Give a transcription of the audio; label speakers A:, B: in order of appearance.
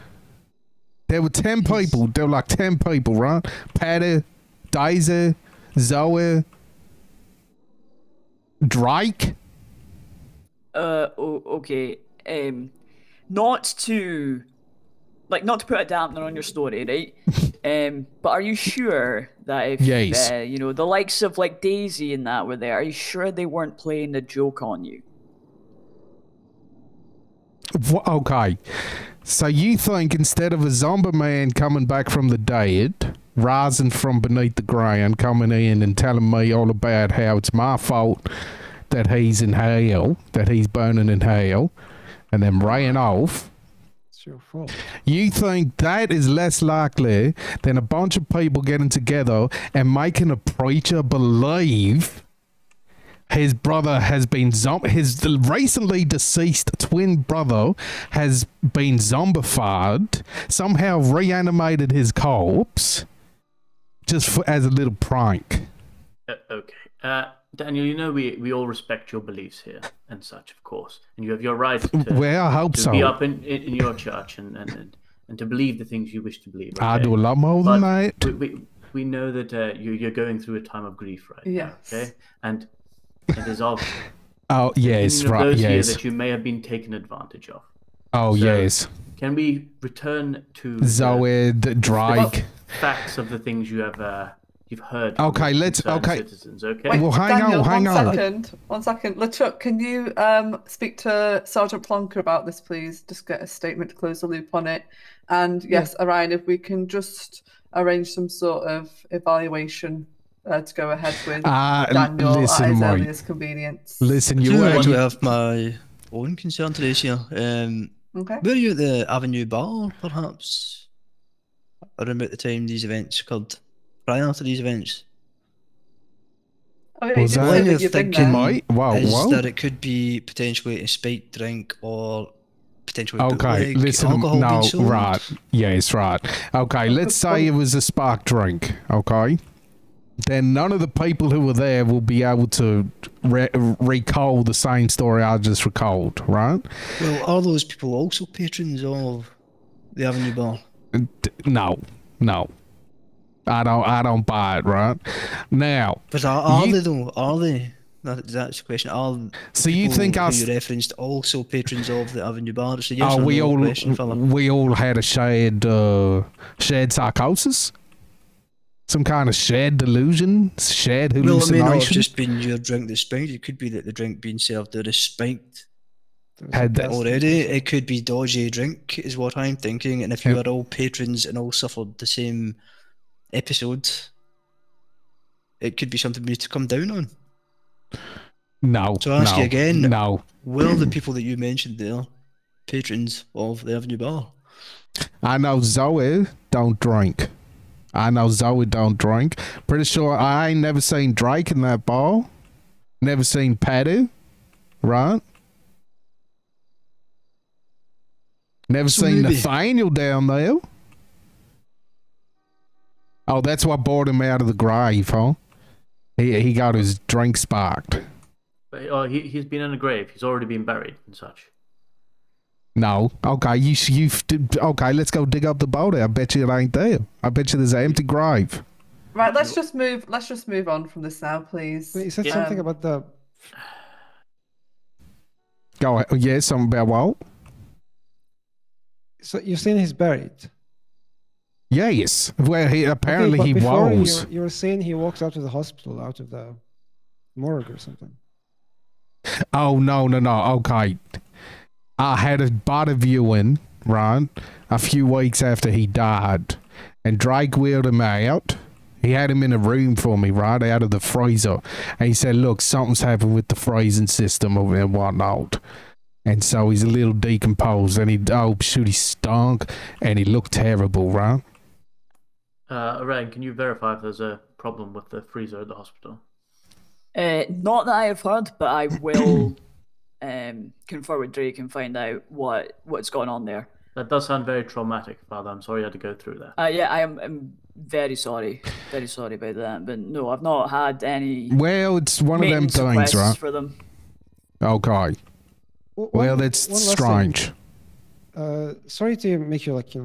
A: There were 10 people. There were like 10 people, right? Patty, Daisy, Zoe, Drake.
B: Uh, oh, okay. Um, not to, like, not to put a dampener on your story, right? um, but are you sure that if,
A: Yes.
B: uh, you know, the likes of like Daisy and that were there, are you sure they weren't playing a joke on you?
A: Wha- Okay. So you think instead of a zombie man coming back from the dead, rising from beneath the ground, coming in and telling me all about how it's my fault that he's in hell, that he's burning in hell, and then ran off,
C: It's your fault.
A: you think that is less likely than a bunch of people getting together and making a preacher believe his brother has been zom- his recently deceased twin brother has been zombified, somehow reanimated his corpse just for, as a little prank.
D: Uh, okay. Uh, Daniel, you know we, we all respect your beliefs here and such, of course. And you have your right to,
A: Well, I hope
D: to
A: so.
D: be up in, in, in your church and, and, and, and to believe the things you wish to believe.
A: I
D: okay?
A: do a lot more
D: But
A: than that.
D: We, we, we know that uh, you, you're going through a time of grief right now,
C: Yes.
D: okay? And it is of
A: Oh yes,
D: opinion of
A: right,
D: those here
A: yes.
D: that you may have been taken advantage of.
A: Oh
D: so-
A: yes.
D: Can we return to the
A: Zoe, D- Drake.
D: facts of the things you have uh, you've heard?
A: Okay,
D: from
A: let's-
D: concerned
A: okay.
D: Citizens, okay.
A: Wait. Well, hang
C: Daniel,
A: on, hang
C: one
A: on.
C: second, one second. LeChuck, can you um, speak to Sergeant Plonker about this, please? Just get a statement to close the loop on it. And yes, Orion, if we can just arrange some sort of evaluation uh, to go ahead with
A: Ah, l-
C: Daniel
A: listen,
C: at his
A: mate.
C: earliest convenience.
A: Listen,
E: Do
A: you
E: you
A: ain't
E: want to have my own concern to raise here? Um,
C: Okay.
E: were you at the Avenue Bar, perhaps? Around about the time these events occurred? Prior to these events?
C: Oh, yeah, you
A: Was
C: did
A: I-
C: say
E: Line
C: that
E: of
C: you've been
E: thinking
C: there.
A: Mate, wow,
E: is
A: wow.
E: that it could be potentially a spiked drink or potentially
A: Okay,
E: bootleg
A: listen.
E: alcohol
A: No,
E: being sold?
A: right. Yes, right. Okay, let's say it was a spark drink. Okay, then none of the people who were there will be able to re- recall the same story I just recalled. Right?
E: Well, are those people also patrons of the Avenue Bar?
A: D- No, no. I don't. I don't buy it. Right now.
E: But are, are
A: You-
E: they though? Are they? That, that's the question. Are the
A: So you
E: people
A: think
E: who
A: us-
E: you referenced also patrons of the Avenue Bar? It's a yes
A: Oh,
E: or
A: we
E: no
A: all
E: question, fella.
A: we all had a shared uh, shared psychosis, some kind of shared delusion, shared
E: Well, it may
A: hallucination.
E: not have just been your drink that's spiked. It could be that the drink being served there is spiked
A: had that,
E: already. It could be dodgy drink, is what I'm thinking. And if you
A: Yeah.
E: are all patrons and all suffered the same episode, it could be something we need to come down on.
A: No.
E: So I ask
A: no,
E: you again.
A: No.
E: Were the people that you mentioned there patrons of the Avenue Bar?
A: I know Zoe don't drink. I know Zoe don't drink. Pretty sure I ain't never seen Drake in that bar. Never seen Patty, right? Never
E: So
A: seen
E: maybe-
A: Nathaniel down there. Oh, that's what brought him out of the grave, huh? He he got his drink sparked.
D: But, oh, he, he's been in a grave. He's already been buried and such.
A: No. Okay, you s- you f- d- okay. Let's go dig up the body. I bet you it ain't there. I bet you there's an empty grave.
C: Right, let's just move. Let's just move on from this now, please. Please.
D: Please.
C: Is
D: Wait,
C: it
D: you said
C: Yeah.
D: something
C: something
D: Um,
C: about the?
A: Go ahead. Yeah, something about what?
C: So you're saying he's buried.
A: Yes. Well, he apparently he was.
C: You were saying he walks out of the hospital, out of the morgue or something.
A: Oh no no no. Okay. I had a body viewing right a few weeks after he died, and Drake wheeled him out. He had him in a room for me, right out of the freezer, and he said, "Look, something's happened with the freezing system over and whatnot." And so he's a little decomposed, and he oh shoot, he stunk, and he looked terrible, right?
D: Uh, Orion, can you verify if there's a problem with the freezer at the hospital?
B: Uh, not that I have heard, but I will um, confer with Drake and find out what what's going on there.
D: That does sound very traumatic, Father. I'm sorry you had to go through that.
B: Uh, yeah, I am. I'm very sorry, very sorry about that. But no, I've not had any
A: Well, it's one of them
B: maintenance
A: things,
B: requests
A: right?
B: for them.
A: Okay.
F: W-
A: Well,
F: one-
A: that's
F: one last thing.
A: strange.
F: Uh, sorry to make you like you know,